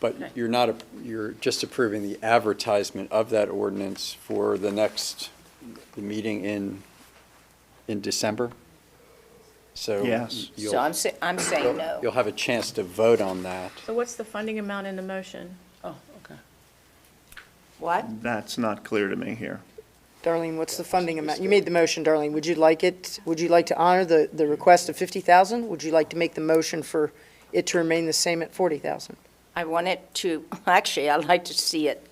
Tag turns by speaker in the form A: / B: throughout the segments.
A: But
B: Right.
A: you're not, a- you're just approving the advertisement of that ordinance for the next, the meeting in, in December? So.
C: Yes.
A: you'll-
D: So I'm, sa- I'm saying no.
A: You'll have a chance to vote on that.
B: So what's the funding amount in the motion?
D: Oh, okay. What?
C: That's not clear to me here.
E: Darlene, what's the funding amount? You made the motion, Darlene. Would you like it, would you like to honor the, the request of 50,000? Would you like to make the motion for it to remain the same at 40,000?
D: I want it to, actually, I'd like to see it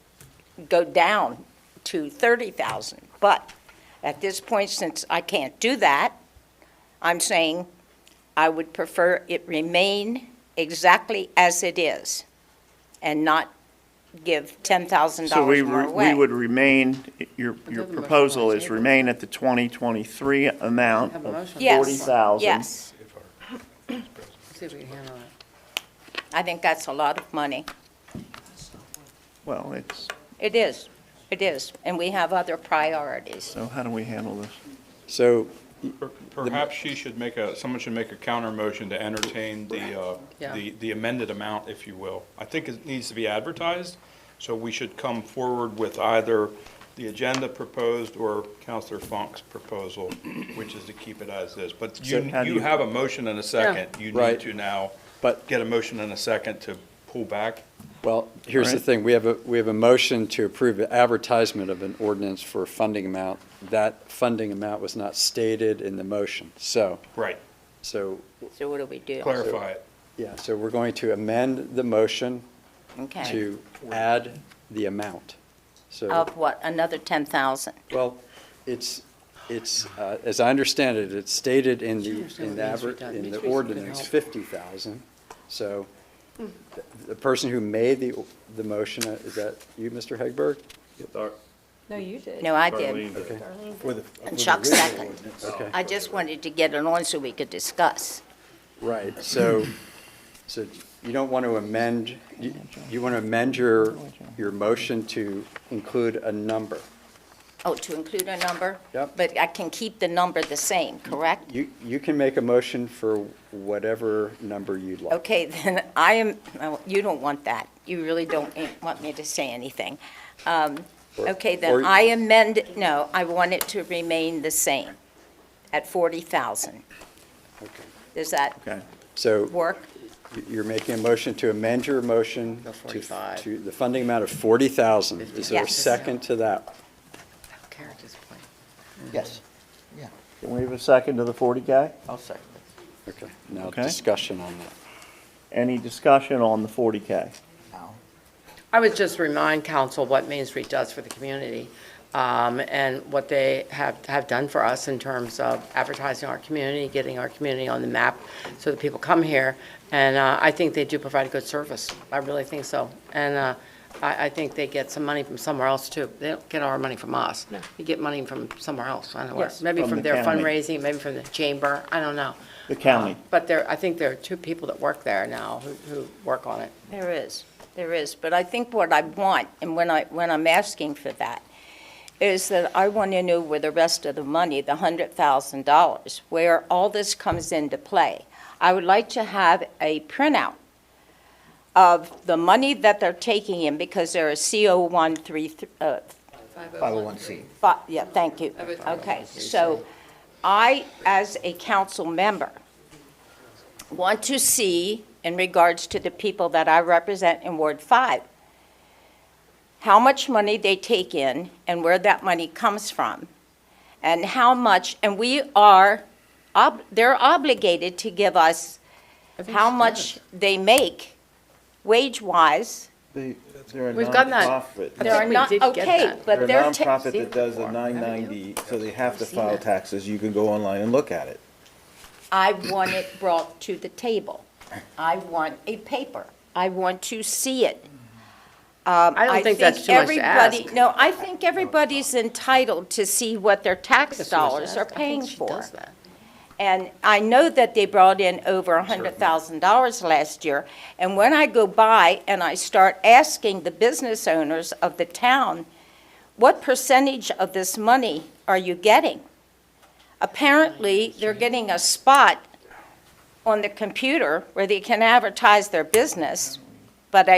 D: go down to 30,000. But at this point, since I can't do that, I'm saying I would prefer it remain exactly as it is and not give
C: So we,
D: $10,000 more
C: re-
D: away.
C: we would remain, your, your proposal is remain at the 2023 amount
F: Have a
C: of
F: motion.
D: Yes,
C: 40,000.
D: Yes,
F: See if we can handle it.
D: I think that's a lot of money.
C: Well, it's,
D: It is, it is, and we have other priorities.
C: so how do we handle this?
A: So
G: Per- Perhaps she should make a, someone should make a counter motion to entertain the, uh,
F: Yeah.
G: the the amended amount, if you will. I think it needs to be advertised, so we should come forward with either the agenda proposed or Counselor Funk's proposal, which is to keep it as is. But you,
C: So how do
G: you
C: you-
G: have a motion and a second. You
A: Right.
G: need to now
A: But-
G: get a motion and a second to pull back.
A: Well, here's the
C: Alright.
A: thing, we have a, we have a motion to approve advertisement of an ordinance for a funding amount. That funding amount was not stated in the motion, so,
G: Right.
A: so,
D: So what do we do?
G: Clarify it.
A: yeah, so we're going to amend the motion
D: Okay.
A: to add the amount. So,
D: Of what, another 10,000?
A: well, it's, it's, uh, as I understand it, it's stated in
F: Sure,
A: the,
F: so
A: in the,
F: it needs to
A: adver-
F: be done.
A: in
F: Needs
A: the
F: to be something
A: ordinance,
F: else.
A: 50,000. So th- the person who made the, the motion, uh, is that you, Mr. Hegberg?
B: No, you did.
D: No, I did.
A: Okay.
D: And Chuck second.
A: Okay.
D: I just wanted to get it on so we could discuss.
A: Right, so, so you don't want to amend, you, you want to amend your, your motion to include a number.
D: Oh, to include a number?
A: Yep.
D: But I can keep the number the same, correct?
A: You, you can make a motion for whatever number you'd like.
D: Okay, then I am, no, you don't want that. You really don't want me to say anything. Um,
A: Or-
D: Okay,
A: or-
D: then I amend, no, I want it to remain the same at 40,000.
A: Okay.
D: Does that
C: Okay.
A: So
D: work?
A: you're making a motion to amend your motion
F: Go
A: to,
F: 45.
A: to the funding amount of forty thousand. Is there a
D: Yes.
A: second to that?
F: Characters play.
H: Yes,
C: Can we have a second to the 40 guy?
H: I'll second it.
A: Okay, now
C: Okay.
A: discussion on that.
C: Any discussion on the 40K?
H: Now,
F: I would just remind council what Main Street does for the community um, and what they have, have done for us in terms of advertising our community, getting our community on the map so that people come here. And uh, I think they do provide a good service. I really think so. And uh, I, I think they get some money from somewhere else too. They don't get our money from us. We get money from somewhere else. I don't know where.
B: Yes.
F: Maybe
C: From
F: from
C: the
F: their
C: county.
F: fundraising, maybe from the chamber. I don't know. Uh,
C: The county.
F: But there, I think there are two people that work there now who, who work on it.
D: There is, there is, but I think what I want, and when I, when I'm asking for that, is that I want to know where the rest of the money, the hundred thousand dollars, where all this comes into play. I would like to have a printout of the money that they're taking in, because there are CO one three, uh,
H: 501C.
D: but, yeah, thank you. Okay, so I, as a council member, want to see, in regards to the people that I represent in Ward 5, how much money they take in and where that money comes from, and how much, and we are, ob- they're obligated to give us how much they make wage-wise.
F: We've gotten that.
D: They're
F: think we
D: not-
F: did get
D: Okay,
F: that.
D: but
I: They're
D: they're.
I: a
D: ta-
I: nonprofit that does a nine ninety, so they have to file taxes, you can go online and look at it.
D: I want it brought to the table. I want a paper. I want to see it. Um,
F: I don't think that's too much to
D: everybody-
F: ask.
D: No, I think everybody's entitled to see what their tax
F: That's what I was
D: dollars are
F: asking. I think
D: paying
F: she
D: for.
F: does that.
D: And I know that they brought in over $100,000 last year. And when I go by and I start asking the business owners of the town, what percentage of this money are you getting? Apparently, they're getting a spot on the computer where they can advertise their business, but I